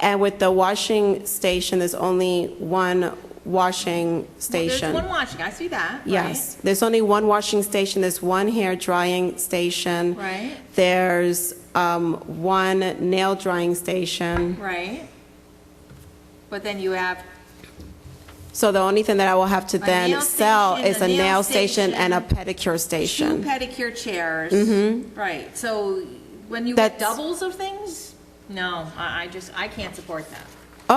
And with the washing station, there's only one washing station. There's one watching, I see that, right? Yes, there's only one washing station, there's one hair drying station. Right. There's um, one nail drying station. Right? But then you have, So the only thing that I will have to A then nail sell station, is a a nail nail station and a station. pedicure two station. pedicure chairs. Mm-hmm. Right, so when you get That's- doubles of things, no, I, I just, I can't support that.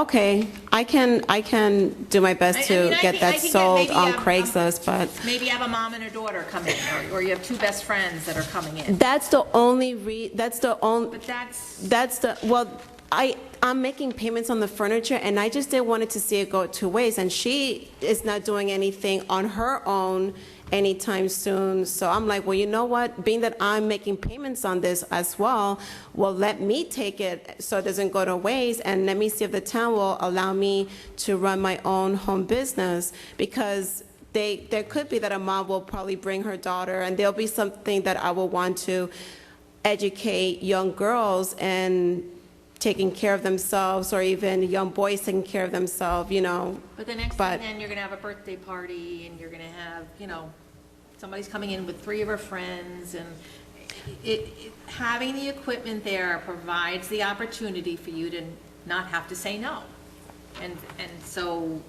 Okay, I can, I can do my I- I best to mean, I get can- I that can get sold maybe, on um, um, Craigslist, but Maybe you have a mom and a daughter come in, or or you have two best friends that are coming in. that's the only re, that's the only, But that's, That's the, well, I, I'm making payments on the furniture, and I just didn't want it to see it go two ways. And she is not doing anything on her own anytime soon. So I'm like, well, you know what? Being that I'm making payments on this as well, well, let me take it so it doesn't go to waste, and let me see if the town will allow me to run my own home business, because they, there could be that a mom will probably bring her daughter, and there'll be something that I will want to educate young girls in taking care of themselves, or even young boys taking care of themselves, you know. but the next But- thing then, you're gonna have a birthday party, and you're gonna have, you know, somebody's coming in with three of her friends, and it, it- having the equipment there provides the opportunity for you to not have to say no. And, and so,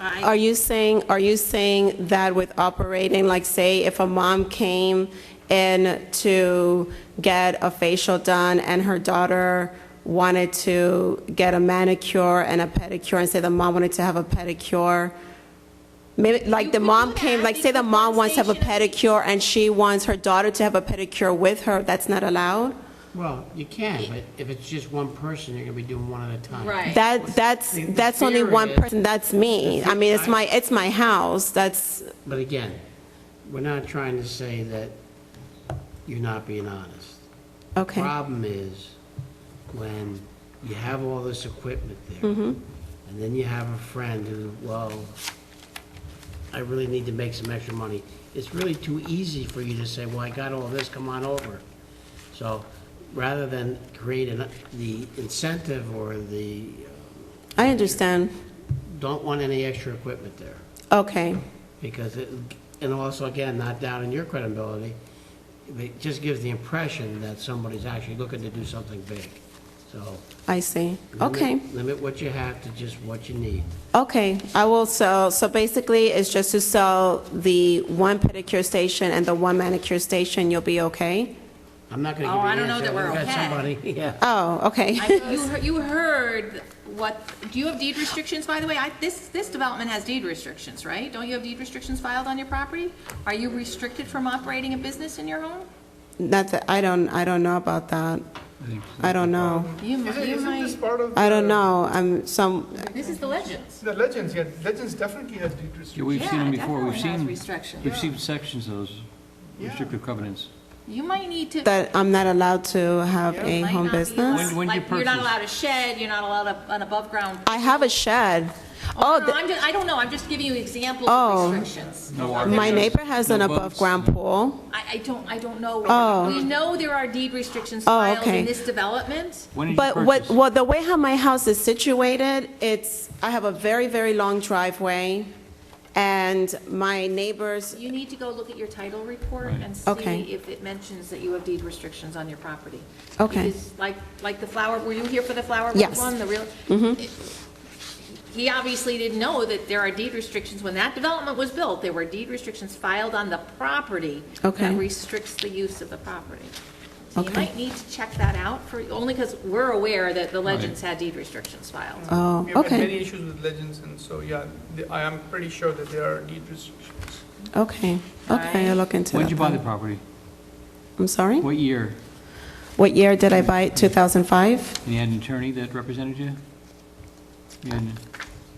Are I, you saying, are you saying that with operating, like, say, if a mom came in to get a facial done, and her daughter wanted to get a manicure and a pedicure, and say the mom wanted to have a pedicure, Maybe, like, You the could mom do came, that like, say the because mom wants to have a conversation- pedicure, and she wants her daughter to have a pedicure with her, that's not allowed? Well, you can, but if it's just one person, you're gonna be doing one at a time. Right. That, that's, The- the that's only fear one is- person, that's me. I mean, it's my, it's my house, that's, But again, we're not trying to say that you're not being honest. okay. Problem is, when you have all this equipment there, and then you have a friend who, well, I really need to make some extra money, it's really too easy for you to say, well, I got all this, come on over. So, rather than create an- the incentive or the, I understand. don't want any extra equipment there. Okay, because it, and also, again, not doubting your credibility, it just gives the impression that somebody's actually looking to do something big. So. I see. limit- Okay, Limit what you have to just what you need. okay, I will sell, so basically, it's just to sell the one pedicure station and the one manicure station, you'll be okay? I'm not gonna Oh, give you I an answer. don't know that we're We've got okay. somebody, yeah. Oh, okay. I, you, heard- you heard what, do you have deed restrictions, by the way? I, this, this development has deed restrictions, right? Don't you have deed restrictions filed on your property? Are you restricted from operating a business in your home? Not that, I don't, I don't know about that. I don't know. You, mi- Isn't, you isn't this might, part of? I don't the- know, I'm some, this is the legends. The legends, yeah, legends definitely has deed Yeah, restrictions. we've seen them before, we've Yeah, it definitely has seen, restrictions. we've seen sections of those Yeah. restrictive covenants. You might need to. that I'm not allowed to have a might home not be allowed- business? When- when you Like, you're not purchase. allowed a shed, you're not allowed a- an above-ground. I have a shed. Oh, Oh, no, th- I'm just, I don't know, I'm just giving you examples Oh. of restrictions. No my architects, neighbor has no an boats, above-ground no- pool. I, I don't, I don't know. Oh. We know there are deed restrictions Oh, filed okay. in this development. When did you But what, purchase? well, the way how my house is situated, it's, I have a very, very long driveway, and my neighbors, You need to go look at your title report Right. and Okay. see if it mentions that you have deed restrictions on your property. Okay. Because like, like the flower, were you here for the flower Yes. Mm-hmm. one, the real? It- He obviously didn't know that there are deed restrictions. When that development was built, there were deed restrictions filed on the property. Okay. That restricts the use of the property. So you Okay. might need to check that out for, only because we're aware that the legends had deed restrictions filed. oh, We have had many okay, issues with legends, and so, yeah, the- I am pretty sure that there are deed restrictions. okay, okay, I'll look into When did you buy the it. property? I'm sorry? What year? What year did I buy it? 2005? And you had an attorney that represented you? You had,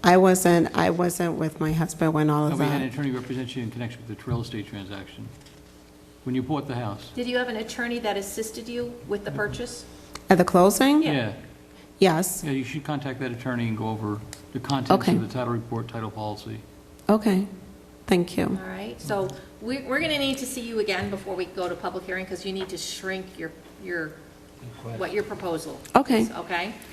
I wasn't, I wasn't with my husband when all of nobody had an that. attorney represent you in connection with the real estate transaction? When you bought the house? Did you have an attorney that assisted you with the purchase? At the closing? Yeah, Yes, yeah, you should contact that attorney and go over the contents Okay. of the title report, title policy. okay, thank you. All right, so we- we're going to need to see you again before we go to public hearing, because you need to shrink your, your Good question. what your proposal Okay. is, okay?